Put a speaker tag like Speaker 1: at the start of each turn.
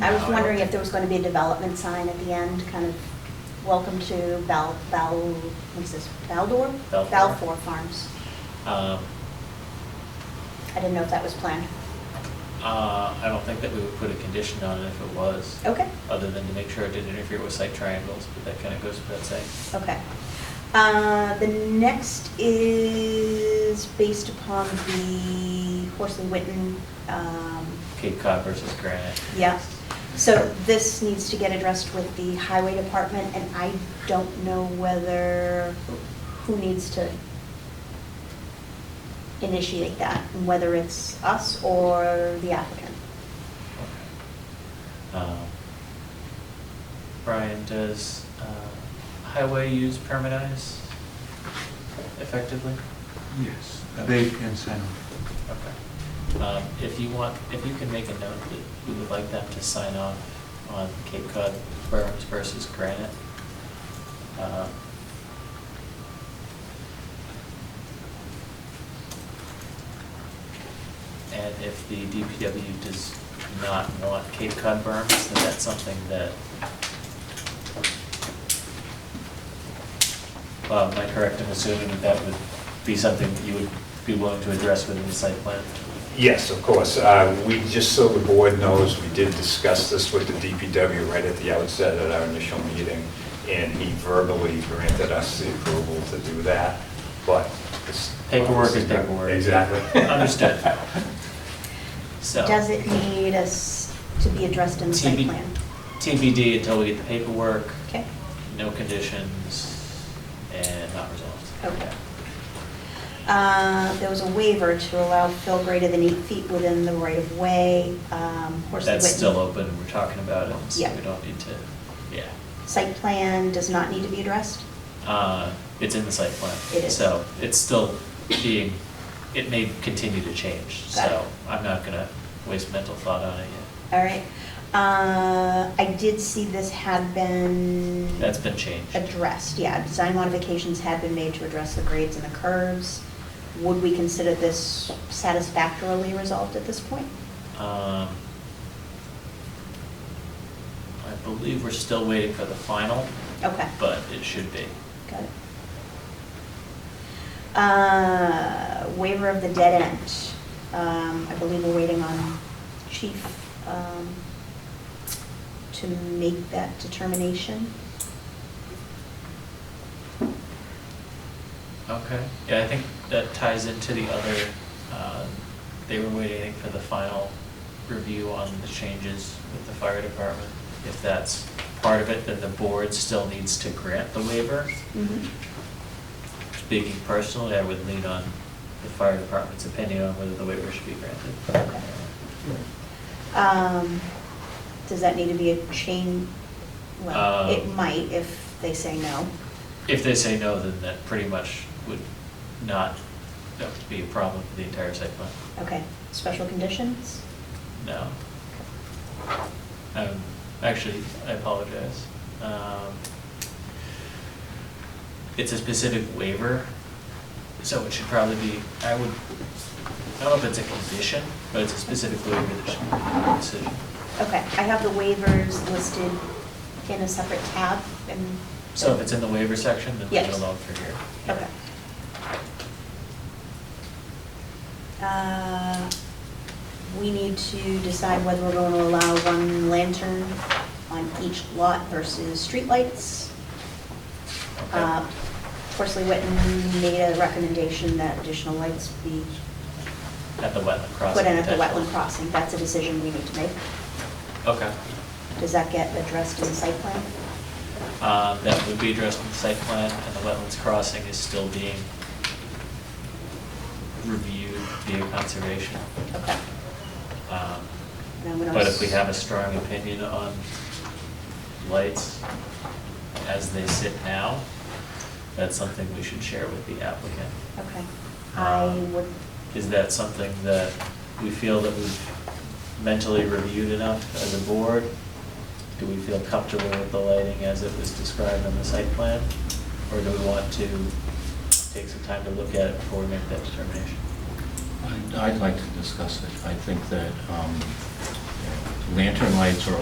Speaker 1: I was wondering if there was going to be a development sign at the end, kind of, welcome to Val, Val, what's this, Valdor?
Speaker 2: Balfour.
Speaker 1: Balfour Farms.
Speaker 2: Um,
Speaker 1: I didn't know if that was planned.
Speaker 2: uh, I don't think that we would put a condition on it if it was.
Speaker 1: Okay.
Speaker 2: Other than to make sure it didn't interfere with site triangles, but that kind of goes without saying.
Speaker 1: Okay. Uh, The next is based upon the Horsley Witten, um,
Speaker 2: Cape Cod versus granite.
Speaker 1: yeah. So this needs to get addressed with the highway department, and I don't know whether, who needs to initiate that, and whether it's us or the applicant.
Speaker 2: Okay. Um, Brian, does uh, highway use permitize effectively?
Speaker 3: Yes, they can sound.
Speaker 2: Okay. Um, If you want, if you can make a note that you would like them to sign off on Cape Cod berms versus granite. um, And if the DPW does not want Cape Cod berms, then that's something that, Bob, am I correct in assuming that that would be something that you would be willing to address within the site plan?
Speaker 4: Yes, of course. Uh, We, just so the board knows, we did discuss this with the DPW right at the outset at our initial meeting, and he verbally granted us the approval to do that, but. it's-
Speaker 2: Paperwork is paperwork.
Speaker 4: Exactly.
Speaker 2: Understood. So.
Speaker 1: Does it need us to be addressed in the site
Speaker 2: TB
Speaker 1: plan?
Speaker 2: TBD until we get the paperwork,
Speaker 1: Okay,
Speaker 2: no conditions, and not resolved.
Speaker 1: okay. Uh, There was a waiver to allow fill greater than eight feet within the right-of-way. um, Horsley
Speaker 2: That's
Speaker 1: Whitten.
Speaker 2: still open, and we're talking about it, so
Speaker 1: Yeah.
Speaker 2: we don't need to, yeah.
Speaker 1: Site plan does not need to be addressed?
Speaker 2: Uh, It's in the site plan.
Speaker 1: It is.
Speaker 2: So it's still being, it may continue to change,
Speaker 1: Got it.
Speaker 2: so I'm not gonna waste mental thought on it yet.
Speaker 1: All right. Uh, I did see this had been.
Speaker 2: That's been changed.
Speaker 1: Addressed, yeah. Design modifications had been made to address the grades and the curves. Would we consider this satisfactorily resolved at this point?
Speaker 2: Um, I believe we're still waiting for the final,
Speaker 1: Okay.
Speaker 2: but it should be.
Speaker 1: Got it. Uh, Waiver of the dead end. Um, I believe we're waiting on chief um, to make that determination.
Speaker 2: Okay, yeah, I think that ties into the other, uh, they were waiting for the final review on the changes with the fire department. If that's part of it, then the board still needs to grant the waiver. Speaking personally, I would lean on the fire department's opinion on whether the waiver should be granted.
Speaker 1: Okay. Um, Does that need to be a chain? Well, it
Speaker 2: Um,
Speaker 1: might if they say no.
Speaker 2: If they say no, then that pretty much would not, that would be a problem for the entire site plan.
Speaker 1: Okay, special conditions?
Speaker 2: No. Um, actually, I apologize. Um, it's a specific waiver, so it should probably be, I would, I don't know if it's a condition, but it's a specific waiver that should be in the decision.
Speaker 1: Okay, I have the waivers listed in a separate tab and.
Speaker 2: So if it's in the waiver section, then leave it
Speaker 1: Yes.
Speaker 2: alone for here.
Speaker 1: Okay. Uh, We need to decide whether we're going to allow one lantern on each lot versus streetlights.
Speaker 2: Okay.
Speaker 1: Uh, Horsley Witten made a recommendation that additional lights be
Speaker 2: At the wetland crossing.
Speaker 1: put in at the
Speaker 2: potentially.
Speaker 1: wetland crossing. That's a decision we need to make.
Speaker 2: Okay.
Speaker 1: Does that get addressed in the site plan?
Speaker 2: Um, that would be addressed in the site plan, and the wetlands crossing is still being reviewed via conservation.
Speaker 1: Okay.
Speaker 2: Um,
Speaker 1: And I'm gonna
Speaker 2: But if we
Speaker 1: s-
Speaker 2: have a strong opinion on lights as they sit now, that's something we should share with the applicant.
Speaker 1: Okay. I
Speaker 2: Um,
Speaker 1: would,
Speaker 2: Is that something that we feel that we've mentally reviewed enough as a board? Do we feel comfortable with the lighting as it was described on the site plan? Or do we want to take some time to look at it before we make that determination?
Speaker 5: I'd- I'd like to discuss it. I think that um, you know, lantern lights are